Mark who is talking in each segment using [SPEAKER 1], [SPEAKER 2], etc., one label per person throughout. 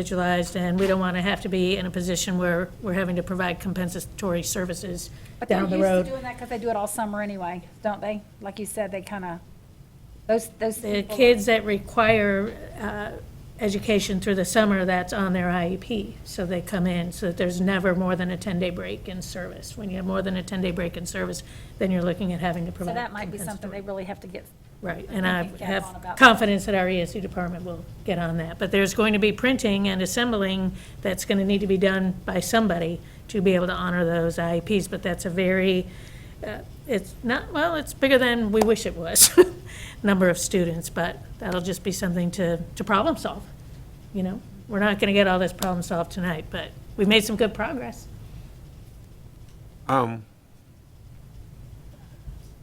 [SPEAKER 1] individualized, and we don't want to have to be in a position where we're having to provide compensatory services
[SPEAKER 2] But they're
[SPEAKER 1] down
[SPEAKER 2] used
[SPEAKER 1] the
[SPEAKER 2] to
[SPEAKER 1] road.
[SPEAKER 2] doing that because they do it all summer anyway, don't they? Like you said, they kind of, those, those.
[SPEAKER 1] The
[SPEAKER 2] people-
[SPEAKER 1] kids that require uh, education through the summer, that's on their IEP, so they come in, so that there's never more than a 10-day break in service. When you have more than a 10-day break in service, then you're looking at having to
[SPEAKER 2] So
[SPEAKER 1] provide.
[SPEAKER 2] that might be something
[SPEAKER 1] compensatory.
[SPEAKER 2] they really have to get.
[SPEAKER 1] Right, and
[SPEAKER 2] we
[SPEAKER 1] I
[SPEAKER 2] can get on
[SPEAKER 1] have
[SPEAKER 2] about that.
[SPEAKER 1] confidence that our ESU department will get on that. But there's going to be printing and assembling that's going to need to be done by somebody to be able to honor those IEPs. But that's a very, uh, it's not, well, it's bigger than we wish it was, number of students. But that'll just be something to, to problem solve, you know? We're not going to get all this problem solved tonight, but we've made some good progress.
[SPEAKER 3] Um,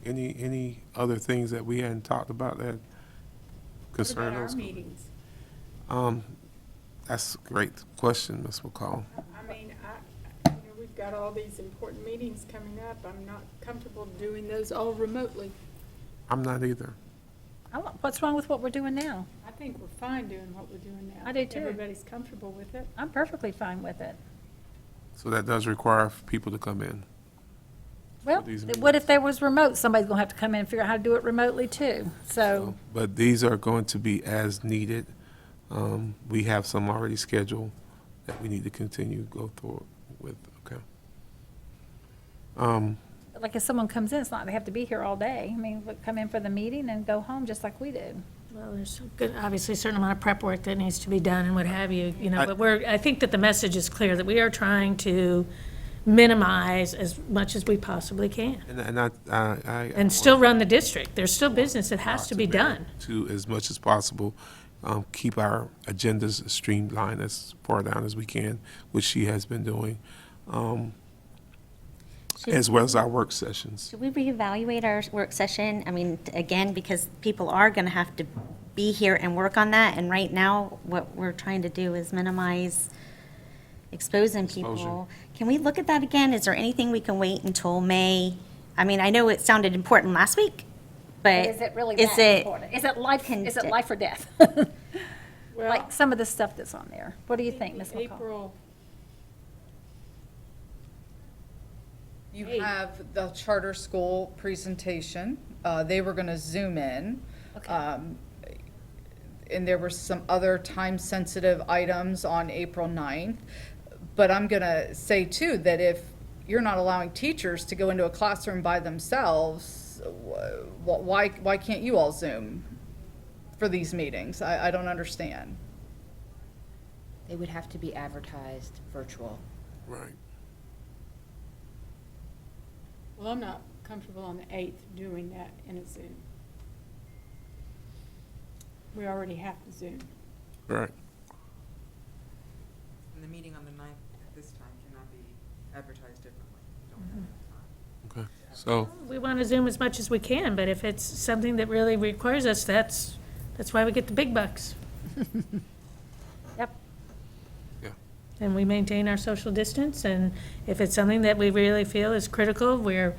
[SPEAKER 3] any, any other things that we hadn't talked about that concern
[SPEAKER 4] About our
[SPEAKER 3] us?
[SPEAKER 4] meetings.
[SPEAKER 3] Um, that's a great question, Ms. McCall.
[SPEAKER 4] I mean, I, you know, we've got all these important meetings coming up. I'm not comfortable doing those all remotely.
[SPEAKER 3] I'm not either.
[SPEAKER 2] I want- What's wrong with what we're doing now?
[SPEAKER 4] I think we're fine doing what we're doing now.
[SPEAKER 2] I do too.
[SPEAKER 4] Everybody's comfortable with it.
[SPEAKER 2] I'm perfectly fine with it.
[SPEAKER 3] So that does require people to come in.
[SPEAKER 2] Well,
[SPEAKER 3] these
[SPEAKER 2] th- what if there was remote? Somebody's going to have to come in and figure out how to do it remotely too.
[SPEAKER 1] Oh.
[SPEAKER 2] So,
[SPEAKER 3] But these are going to be as needed. Um, we have some already scheduled that we need to continue go through with, okay? Um,
[SPEAKER 2] like if someone comes in, it's not, they have to be here all day. I mean, look, come in for the meeting and go home just like we do.
[SPEAKER 1] Well, there's a good, obviously a certain amount of prep work that needs to be done and what have you, you know,
[SPEAKER 3] I-
[SPEAKER 1] but we're, I think that the message is clear, that we are trying to minimize as much as we possibly can.
[SPEAKER 3] and, and I, I. I-
[SPEAKER 1] And still run the district. There's still business that has to be done.
[SPEAKER 3] To, as much as possible, um, keep our agendas streamlined as far down as we can, which she has been doing, um, as well as our work sessions.
[SPEAKER 5] Should we reevaluate our work session? I mean, again, because people are going to have to be here and work on that, and right now, what we're trying to do is minimize exposing people. Can we look at that again? Is there anything we can wait until May? I mean, I know it sounded important last week, but.
[SPEAKER 2] Is it really
[SPEAKER 5] is
[SPEAKER 2] that
[SPEAKER 5] it-
[SPEAKER 2] important? Is it life, is it
[SPEAKER 5] Condi-
[SPEAKER 2] life or death?
[SPEAKER 4] Well,
[SPEAKER 2] Like some of the stuff that's on there. What do you
[SPEAKER 4] I
[SPEAKER 2] think, Ms.
[SPEAKER 4] the
[SPEAKER 2] McCall?
[SPEAKER 4] April,
[SPEAKER 6] You
[SPEAKER 4] Eight.
[SPEAKER 6] have the charter school presentation. Uh, They were going to zoom in. Um, And there were some other time-sensitive items on April 9th. But I'm going to say too, that if you're not allowing teachers to go into a classroom by themselves, wh- why, why can't you all Zoom for these meetings? I, I don't understand.
[SPEAKER 7] They would have to be advertised virtual.
[SPEAKER 3] Right.
[SPEAKER 4] well, I'm not comfortable on the eighth doing that in a Zoom. We already have the Zoom.
[SPEAKER 3] Right.
[SPEAKER 8] And the meeting on the ninth at this time cannot be advertised differently. You don't have enough time.
[SPEAKER 3] Okay. So,
[SPEAKER 1] We want to Zoom as much as we can, but if it's something that really requires us, that's, that's why we get the big bucks.
[SPEAKER 2] Yep.
[SPEAKER 3] yeah.
[SPEAKER 1] and we maintain our social distance, and if it's something that we really feel is critical, we're,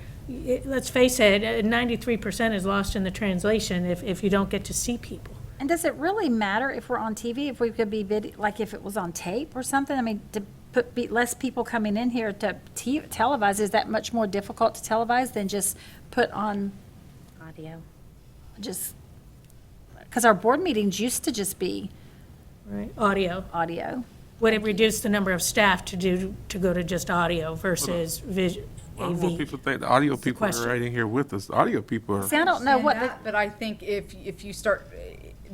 [SPEAKER 1] eh, let's face it, uh, ninety-three percent is lost in the translation if, if you don't get to see people.
[SPEAKER 2] And does it really matter if we're on TV, if we could be vid, like if it was on tape or something? I mean, to put, be less people coming in here to te- televise, is that much more difficult to televise than just put on,
[SPEAKER 5] Audio.
[SPEAKER 2] just, because our board meetings used to just be
[SPEAKER 1] Right. Audio.
[SPEAKER 2] audio.
[SPEAKER 1] Would it reduce the number of staff to do, to go to just audio versus vis,
[SPEAKER 3] I don't want
[SPEAKER 1] AV?
[SPEAKER 3] people to think the audio people
[SPEAKER 1] question.
[SPEAKER 3] are right in here with us. The audio people are.
[SPEAKER 2] See, I don't know what,
[SPEAKER 6] understand
[SPEAKER 2] the-
[SPEAKER 6] that, But I think if, if you start,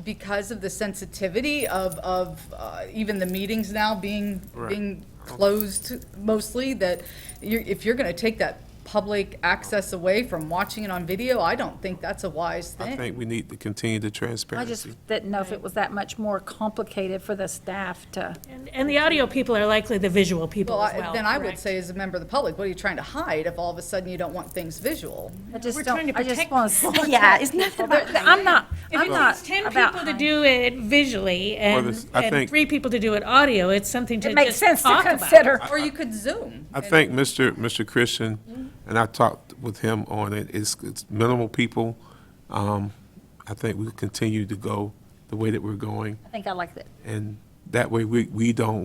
[SPEAKER 6] because of the sensitivity of, of uh, even the meetings now being,
[SPEAKER 3] Right.
[SPEAKER 6] being closed mostly, that you're, if you're going to take that public access away from watching it on video, I don't think that's a wise
[SPEAKER 3] I
[SPEAKER 6] thing.
[SPEAKER 3] think we need to continue the
[SPEAKER 2] I just
[SPEAKER 3] transparency.
[SPEAKER 2] didn't know if it was that much more complicated for the staff to.
[SPEAKER 1] And- And the audio people are likely the visual people
[SPEAKER 6] Well,
[SPEAKER 1] as
[SPEAKER 6] I-
[SPEAKER 1] well.
[SPEAKER 6] then I would
[SPEAKER 1] correct?
[SPEAKER 6] say as a member of the public, what are you trying to hide if all of a sudden you don't want things visual?
[SPEAKER 2] I just
[SPEAKER 1] We're trying
[SPEAKER 2] don't,
[SPEAKER 1] to
[SPEAKER 2] I just
[SPEAKER 1] protect
[SPEAKER 2] want to.
[SPEAKER 5] Yeah, it's nothing about
[SPEAKER 2] I'm not, I'm not
[SPEAKER 1] It's ten
[SPEAKER 2] about.
[SPEAKER 1] people to do it visually and,
[SPEAKER 3] this- I
[SPEAKER 1] and
[SPEAKER 3] think-
[SPEAKER 1] three people to do it audio, it's something to
[SPEAKER 2] It makes
[SPEAKER 1] just
[SPEAKER 2] sense to
[SPEAKER 1] talk about.
[SPEAKER 2] consider.
[SPEAKER 6] Or you could Zoom.
[SPEAKER 3] I think Mr. Mr. Christian, and I talked with him on it, it's, it's minimal people. Um, I think we'll continue to go the way that we're going
[SPEAKER 2] I think I like that.
[SPEAKER 3] and That way, we, we don't